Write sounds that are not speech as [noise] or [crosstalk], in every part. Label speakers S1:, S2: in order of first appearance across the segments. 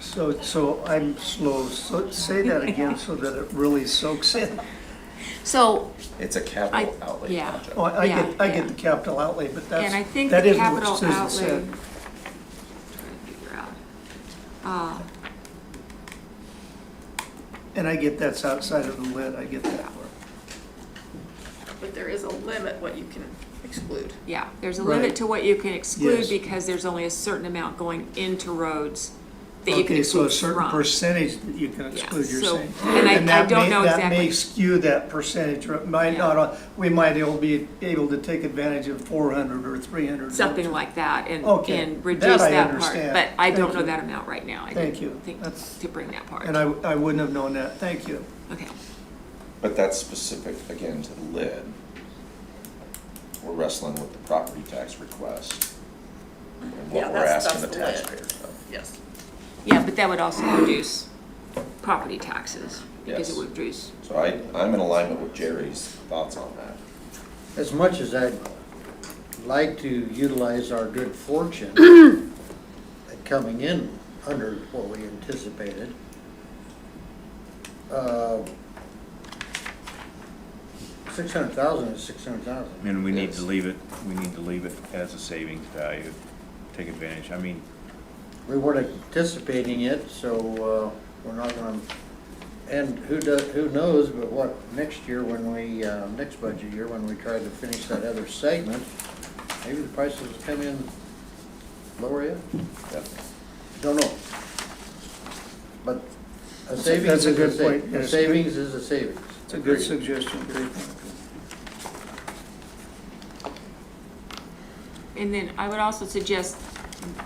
S1: So, so I'm slow, so say that again so that it really soaks in.
S2: So,
S3: It's a
S2: I,
S3: capital outlay
S2: yeah.
S3: project.
S1: Oh, I I get, I
S2: yeah, yeah.
S1: get the capital outlay, but that's,
S2: And I think the
S1: that isn't what
S2: capital
S1: Susan
S2: outlay.
S1: said.
S2: Trying to figure out. Uh,
S1: And I get that's outside of the lid, I get that.
S4: But there is a limit what you can exclude.
S2: Yeah, there's a
S1: Right.
S2: limit to what you can exclude
S1: Yes.
S2: because there's only a certain amount going into roads that you can
S1: Okay, so a
S2: exclude
S1: certain
S2: from.
S1: percentage that you can
S2: Yeah,
S1: exclude, you're
S2: so-
S1: saying.
S2: and I- I
S1: that
S2: don't
S1: may-
S2: know
S1: That may
S2: exactly.
S1: skew that percentage, or it might
S2: Yeah.
S1: not, uh, we might able be able to take advantage of four hundred or three hundred.
S2: Something like that and,
S1: Okay,
S2: and
S1: that
S2: reduce
S1: I
S2: that part.
S1: understand.
S2: But I
S1: Thank
S2: don't know
S1: you.
S2: that amount right now. I
S1: Thank
S2: didn't
S1: you.
S2: think
S1: That's-
S2: to bring that part.
S1: And I, I wouldn't have known that, thank you.
S2: Okay,
S3: But that's specific, again, to the lid. We're wrestling with the property tax request and
S4: Yeah,
S3: what we're
S4: that's-
S3: asking the
S4: that's the lid.
S3: taxpayer for.
S4: Yes.
S2: yeah, but that would also reduce property taxes because it
S3: Yes.
S2: would reduce,
S3: So I, I'm in alignment with Jerry's thoughts on that.
S5: As much as I'd like to utilize our good fortune at coming in under what we anticipated, uh, six hundred thousand is six hundred thousand.
S6: And we need
S3: Yes.
S6: to leave it, we need to leave it as a savings value, take advantage, I mean,
S5: We weren't anticipating it, so uh, we're not gonna, and who does, who knows, but what, next year when we, uh, next budget year, when we try to finish that other segment, maybe the prices come in lower yet?
S3: Yep.
S5: Don't know. But a
S1: That's a-
S5: savings
S1: that's
S5: is
S1: a
S5: a
S1: good point.
S5: savings. A
S1: Yes.
S5: savings is a savings.
S1: It's a good
S3: Agreed.
S1: suggestion, great point.
S2: and then I would also suggest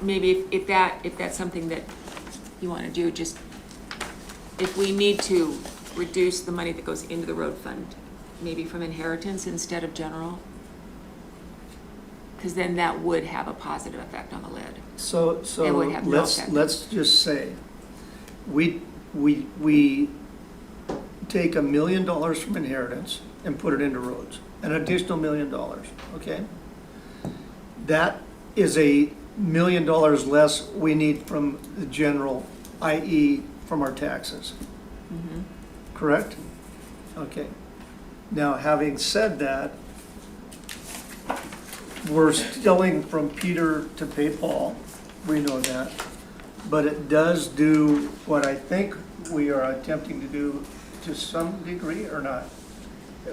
S2: maybe if, if that, if that's something that you wanna do, just if we need to reduce the money that goes into the road fund, maybe from inheritance instead of general. Cause then that would have a positive effect on the lid.
S1: So, so
S2: would have no
S1: let's,
S2: effect.
S1: let's just say, we, we, we take a million dollars from inheritance and put it into roads, an additional million dollars, okay? That is a million dollars less we need from the general, i.e. from our taxes.
S2: Mm-hmm.
S1: Correct? Okay. Now, having said that, we're stealing from Peter to pay Paul, we know that. But it does do what I think we are attempting to do to some degree or not.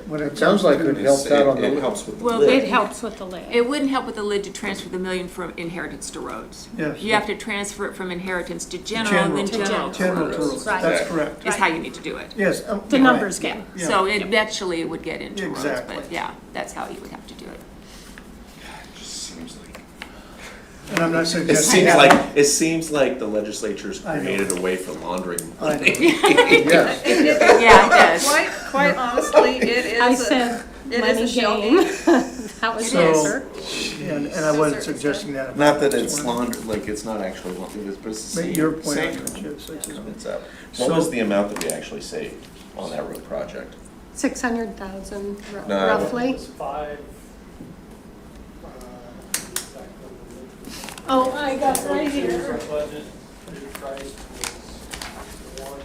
S1: What
S5: It sounds like it helps out on
S3: It
S5: the,
S3: helps with the
S2: Well,
S3: lid.
S2: it
S7: helps with the lid.
S2: It wouldn't help with the lid to transfer the million from inheritance to roads.
S1: Yes.
S2: You have to transfer it from inheritance to general and
S1: General,
S2: then
S7: General.
S2: general
S7: to
S2: to
S1: general
S2: roads.
S1: rules,
S7: Right.
S1: that's correct.
S2: Is how you need to do it.
S1: Yes. um,
S7: The
S1: right.
S7: numbers game.
S1: Yeah.
S2: So eventually it would get into roads,
S1: Exactly.
S2: but yeah, that's how you would have to do it.
S3: It just seems like.
S1: And I'm not
S3: It
S1: suggesting.
S3: seems like, it seems like the legislature's
S1: I know.
S3: created a way for laundering
S1: I know.
S3: money.
S5: [laughs]
S4: [laughs]
S5: yes.
S2: Yeah, it does.
S4: Quite, quite honestly, it is.
S7: I
S4: a-
S7: said
S4: it is a
S7: money
S4: shell
S7: game. [laughs]
S4: [laughs]
S7: That was the
S1: So-
S7: answer.
S1: And, and I wasn't suggesting that.
S3: Not that it's launder, like, it's not actually laundering, but it's the same.
S1: But your point,
S3: same.
S1: Chip, such as-
S3: It's up. What
S1: So-
S3: was the amount that we actually saved on that road project?
S7: Six hundred thousand
S3: No, I don't-
S7: roughly.
S8: It's five, uh, exact number.
S7: Oh, I got right
S8: Our
S7: here.
S8: budget, the price was one,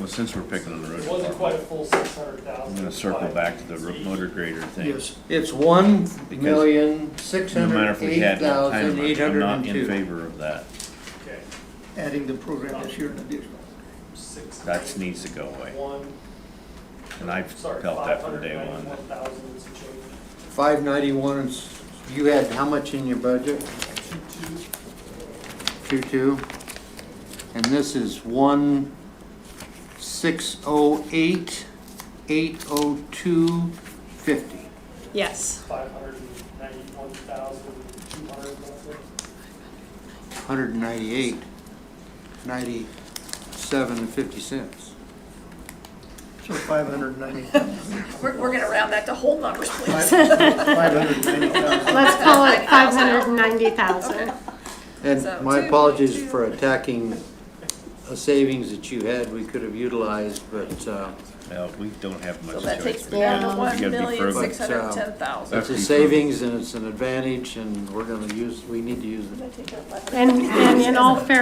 S6: well, since we're picking on the road
S8: it wasn't quite a
S6: department,
S8: full six hundred
S6: I'm
S8: thousand.
S6: gonna circle back to the ro- motor grader thing.
S1: Yes,
S5: It's one million, six
S6: No matter
S5: hundred
S6: if we
S5: eight
S6: had that time,
S5: thousand, eight
S6: I'm
S5: hundred
S6: not
S5: and
S6: in
S5: two.
S6: favor of that,
S8: Okay,
S1: adding the program this year in additional.
S8: six.
S6: that needs to go away,
S8: One,
S6: and I've
S8: sorry,
S6: felt
S8: five
S6: that from
S8: hundred
S6: day one.
S8: ninety-one thousand and some change.
S5: Five ninety-one, and s- you had how much in your budget?
S8: Two-two,
S5: Two-two. And this is one, six oh eight, eight oh two, fifty.
S7: Yes.
S8: five hundred and ninety-one thousand, two hundred, roughly.
S5: Hundred and ninety-eight, ninety-seven and fifty cents.
S1: So five hundred ninety,
S4: We're, we're gonna round that to whole numbers,
S1: five
S4: please.
S1: hundred ninety thousand.
S4: [laughs]
S7: Let's call it
S4: oh.
S7: five hundred and ninety thousand.
S5: And
S4: So
S5: my
S4: two,
S5: apologies
S4: two.
S5: for attacking a savings that you had we could have utilized, but, uh,
S6: Well, we don't have much
S4: So
S6: choice.
S4: that takes
S6: We
S4: me down to
S6: gotta- we
S4: one
S6: gotta be
S4: million,
S6: frugal.
S4: six hundred and ten thousand.
S5: it's a savings and it's an advantage and we're gonna use, we need to use it.
S7: And, and in all fairness,